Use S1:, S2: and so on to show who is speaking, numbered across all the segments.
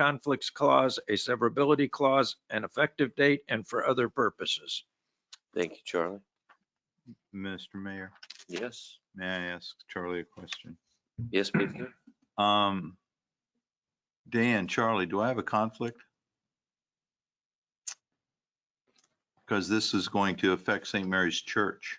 S1: conflicts clause, a severability clause, an effective date, and for other purposes.
S2: Thank you, Charlie.
S3: Mr. Mayor,
S2: Yes,
S3: may I ask Charlie a question?
S2: yes, please do.
S3: Um, Dan, Charlie, do I have a conflict? Because this is going to affect St. Mary's Church.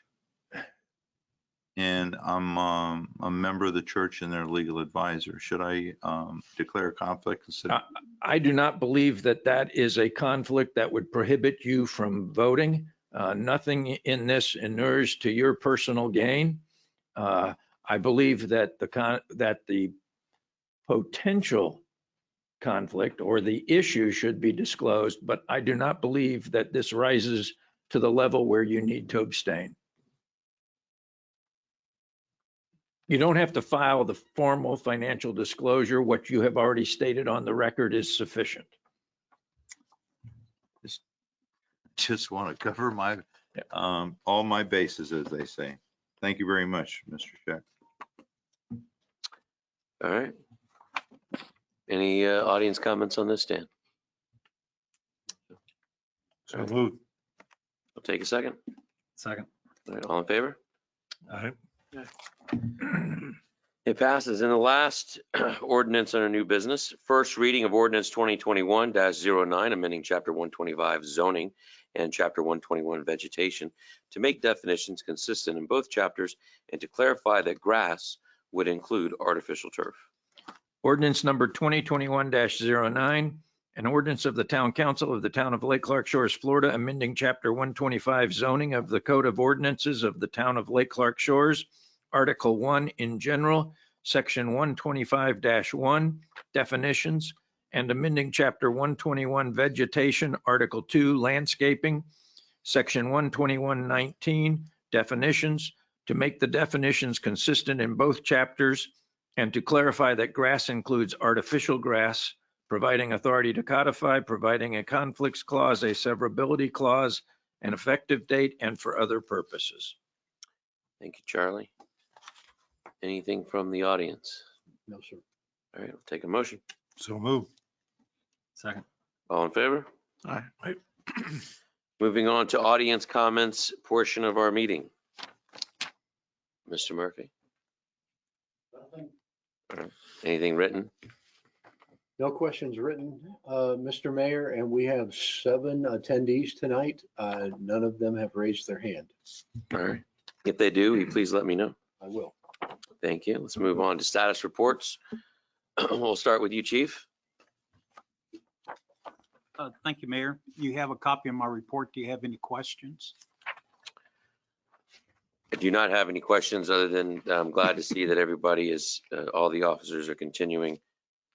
S3: And I'm, um, a member of the church and their legal advisor. Should I, um, declare a conflict instead? of-
S1: I do not believe that that is a conflict that would prohibit you from voting. Uh, Nothing in this inures to your personal gain. Uh, I believe that the, con- that the potential conflict or the issue should be disclosed, but I do not believe that this rises to the level where you need to abstain. You don't have to file the formal financial disclosure. What you have already stated on the record is sufficient.
S3: Just want to cover my,
S1: Yeah.
S3: um, all my bases, as they say. Thank you very much, Mr. Scheck.
S2: All right. Any uh, audience comments on this, Dan? So
S3: moved.
S2: I'll take a second.
S4: Second.
S2: All right, all in favor?
S4: All right.
S2: It passes. And the last ordinance under new business, first reading of ordinance 2021-09, amending Chapter 125 zoning and Chapter 121 vegetation to make definitions consistent in both chapters and to clarify that grass would include artificial turf.
S1: Ordinance number 2021-09, an ordinance of the Town Council of the Town of Lake Clark Shores, Florida, amending Chapter 125 zoning of the Code of Ordinances of the Town of Lake Clark Shores, Article 1 in general, Section 125-1, definitions, and amending Chapter 121 vegetation, Article 2 landscaping, Section 121-19, definitions, to make the definitions consistent in both chapters and to clarify that grass includes artificial grass, providing authority to codify, providing a conflicts clause, a severability clause, an effective date, and for other purposes.
S2: Thank you, Charlie. Anything from the audience?
S4: No, sir.
S2: All right, I'll take a motion.
S3: So moved.
S4: Second.
S2: All in favor?
S4: Aye.
S2: Moving on to audience comments portion of our meeting. Mr. Murphy, anything written?
S5: No questions written, uh, Mr. Mayor, and we have seven attendees tonight. Uh, None of them have raised their hand.
S2: All right. If they do, will you please let me know.
S5: I will.
S2: Thank you. Let's move on to status reports. We'll start with you, chief.
S6: Uh, Thank you, Mayor. You have a copy of my report. Do you have any questions?
S2: I do not have any questions other than I'm glad to see that everybody is, uh, all the officers are continuing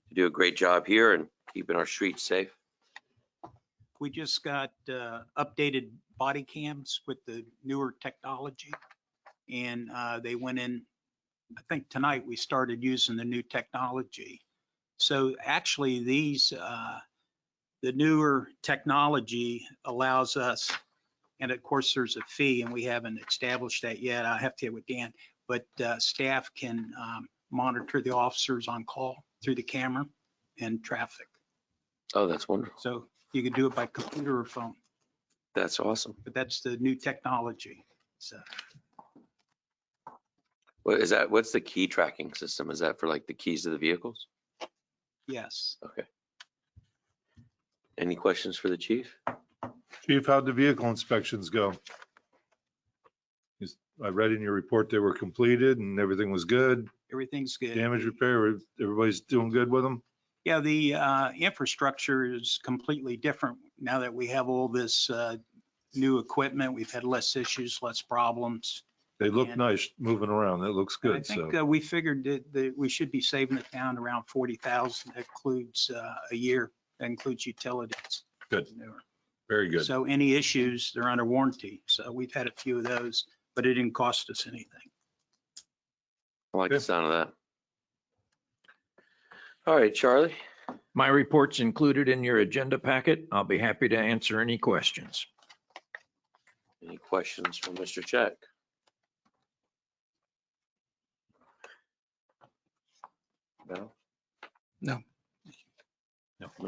S2: to do a great job here and keeping our streets safe.
S6: We just got uh, updated body cams with the newer technology. And uh, they went in, I think tonight we started using the new technology. So actually, these, uh, the newer technology allows us, and of course, there's a fee and we haven't established that yet. I have to get with Dan, but uh, staff can um, monitor the officers on call through the camera and traffic.
S2: Oh, that's wonderful.
S6: So you could do it by computer or phone,
S2: That's awesome.
S6: but that's the new technology. So
S2: What is that? What's the key tracking system? Is that for like the keys to the vehicles?
S6: yes,
S2: Okay. Any questions for the chief?
S7: Chief, how'd the vehicle inspections go? Is- I read in your report they were completed and everything was good.
S6: everything's good.
S7: Damage repair, everybody's doing good with them?
S6: Yeah, the uh, infrastructure is completely different now that we have all this uh, new equipment. We've had less issues, less problems.
S7: They look
S6: Yeah.
S7: nice moving around. That looks
S6: I
S7: good, so.
S6: think uh, we figured that, that we should be saving the town around 40,000. That includes uh, a year, that includes utilities.
S7: Good. Very good.
S6: So any issues, they're under warranty. So we've had a few of those, but it didn't cost us anything.
S2: I like the
S7: Yeah.
S2: sound of that. All right, Charlie.
S1: My report's included in your agenda packet. I'll be happy to answer any questions.
S2: Any questions from Mr. Check? No?
S4: No. No.